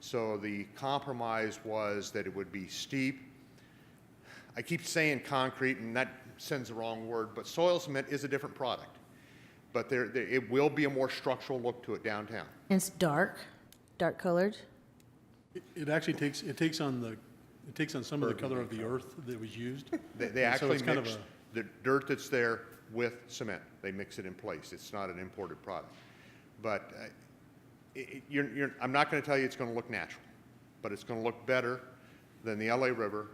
So the compromise was that it would be steep. I keep saying concrete, and that sends the wrong word, but soil cement is a different product. But there, there- it will be a more structural look to it downtown. And it's dark, dark colored. It- It actually takes, it takes on the, it takes on some of the color of the earth that was used. They, they And so actually it's kind of mix a- the dirt that's there with cement. They mix it in place. It's not an imported product. But uh, it, it- you're, you're, I'm not going to tell you it's going to look natural, but it's going to look better than the LA River,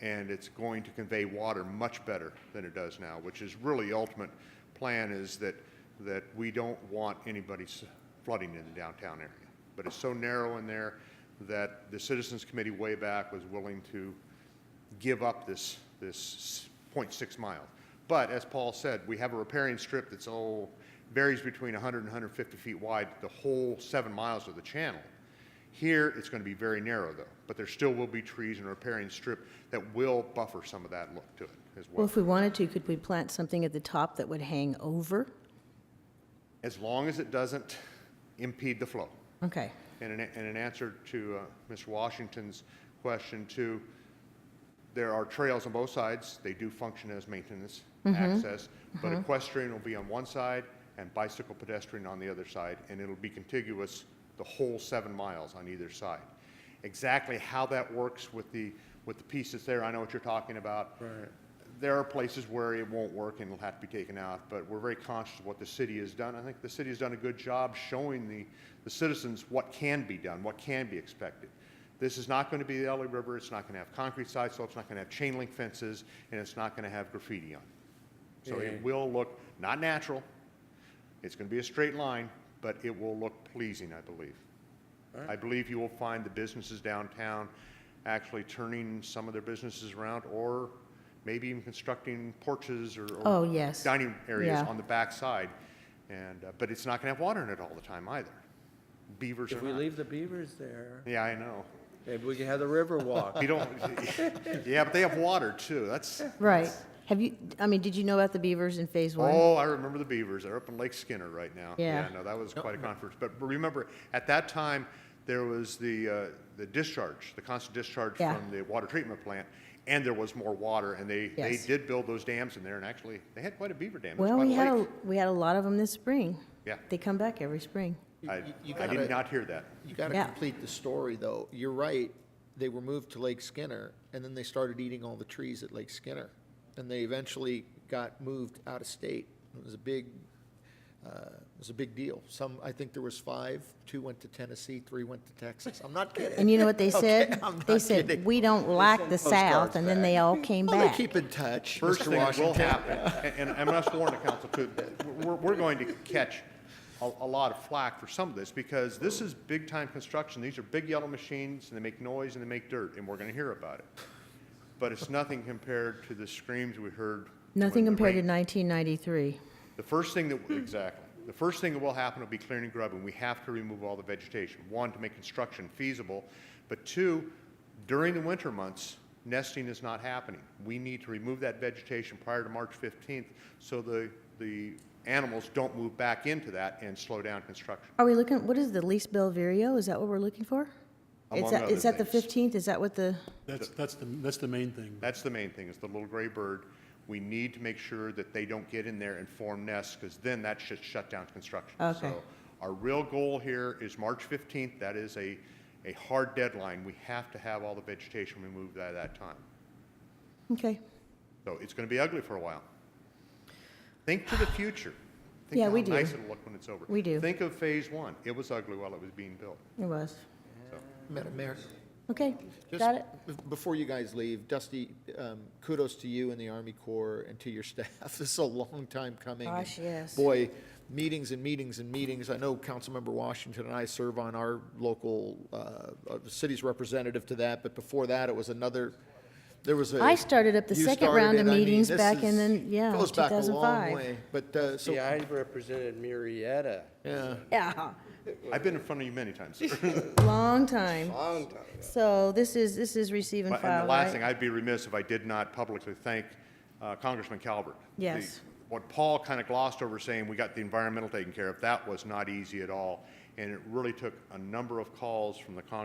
and it's going to convey water much better than it does now, which is really the ultimate plan is that, that we don't want anybody s- flooding in the downtown area. But it's so narrow in there that the Citizens Committee way back was willing to give up this, this 0.6 mile. But as Paul said, we have a repairing strip that's, oh, varies between 100 and 150 feet wide, the whole seven miles of the channel. Here, it's going to be very narrow, though, but there still will be trees and a repairing strip that will buffer some of that look to it as Well, well. if we wanted to, could we plant something at the top that would hang over? As long as it doesn't impede the flow. Okay. And in, and in answer to uh, Mr. Washington's question too, there are trails on both sides. They do function as maintenance access, but equestrian will be on one side and bicycle pedestrian on the other side, and it'll be contiguous the whole seven miles on either side. Exactly how that works with the, with the pieces there, I know what you're talking about. Right. There are places where it won't work and it'll have to be taken out, but we're very conscious of what the city has done. I think the city has done a good job showing the, the citizens what can be done, what can be expected. This is not going to be the LA River, it's not going to have concrete sidewalks, it's not going to have chain link fences, and it's not going to have graffiti on it. So it will look not natural, it's going to be a straight line, but it will look pleasing, I believe. I believe you will find the businesses downtown actually turning some of their businesses around or maybe even constructing porches or or Oh, yes. dining areas Yeah. on the backside. And, uh, but it's not going to have water in it all the time either. Beavers are If we not. leave the beavers there, Yeah, I know. maybe we can have the river walk. You don't, yeah, but they have water too. That's, Right. Have you, I mean, did you know about the beavers in phase one? Oh, I remember the Beavers. They're up in Lake Skinner right now. Yeah. no, that was quite a conference. But remember, at that time, there was the, uh, the discharge, the constant discharge Yeah. from the water treatment plant, and there was more water, and they, they Yes. did build those dams in there, and actually, they had quite a beaver dam. It was Well, quite we had, a a lake. we had a lot of them this spring. Yeah. They come back every spring. I, You- you I gotta- did not hear that. You got to Yeah. complete the story, though. You're right. They were moved to Lake Skinner, and then they started eating all the trees at Lake Skinner, and they eventually got moved out of state. It was a big, uh, it was a big deal. Some, I think there was five. Two went to Tennessee, three went to Texas. I'm not kidding. And you know what they Okay, said? I'm They not said, kidding. we don't like the South, and then they all came Well, they back. keep in touch, First Mr. thing that will Washington. happen, and, and I must warn the council too, that we're, we're going to catch a, a lot of flack for some of this because this is big time construction. These are big yellow machines and they make noise and they make dirt and we're gonna hear about it. But it's nothing compared to the screams we heard. Nothing when the compared to rain- 1993. The first thing that, exactly, the first thing that will happen will be clearing and grubbing. We have to remove all the vegetation. One, to make construction feasible, but two, during the winter months, nesting is not happening. We need to remove that vegetation prior to March 15th so the, the animals don't move back into that and slow down construction. Are we looking, what is the least Belverio? Is that what we're looking for? It's Among at- other It's at the things. 15th? Is that what the, That's, that's the, that's the main thing. That's the main thing, is the little gray bird. We need to make sure that they don't get in there and form nests, because then that should shut down construction. Okay. So Our real goal here is March 15th. That is a, a hard deadline. We have to have all the vegetation removed by that time. okay. So it's going to be ugly for a while. Think to the future. Think Yeah, of we how do. nice it'll look when it's over. We do. Think of Phase One. It was ugly while it was being built. It was. Madam Mayor. Okay, Just got it? b- Before you guys leave, Dusty, um, kudos to you and the Army Corps and to your staff. This is a long time coming. and Gosh, yes. Boy, meetings and meetings and meetings. I know Councilmember Washington and I serve on our local, uh, uh, the city's representative to that, but before that, it was another, there was a. I started up the you second round started of it. I mean, meetings this back in is- the- yeah, Goes back a long 2005. way. But, uh, so, See, I represented Marietta. yeah. Yeah, I've been in front of you many times. sir. long time. Long time. So this is, this is receive and But- And file, the last right? thing, I'd be remiss if I did not publicly thank uh, Congressman Calvert. The- Yes. What Paul kind of glossed over saying, we got the environmental taken care of, that was not easy at all. And it really took a number of calls from the Congress.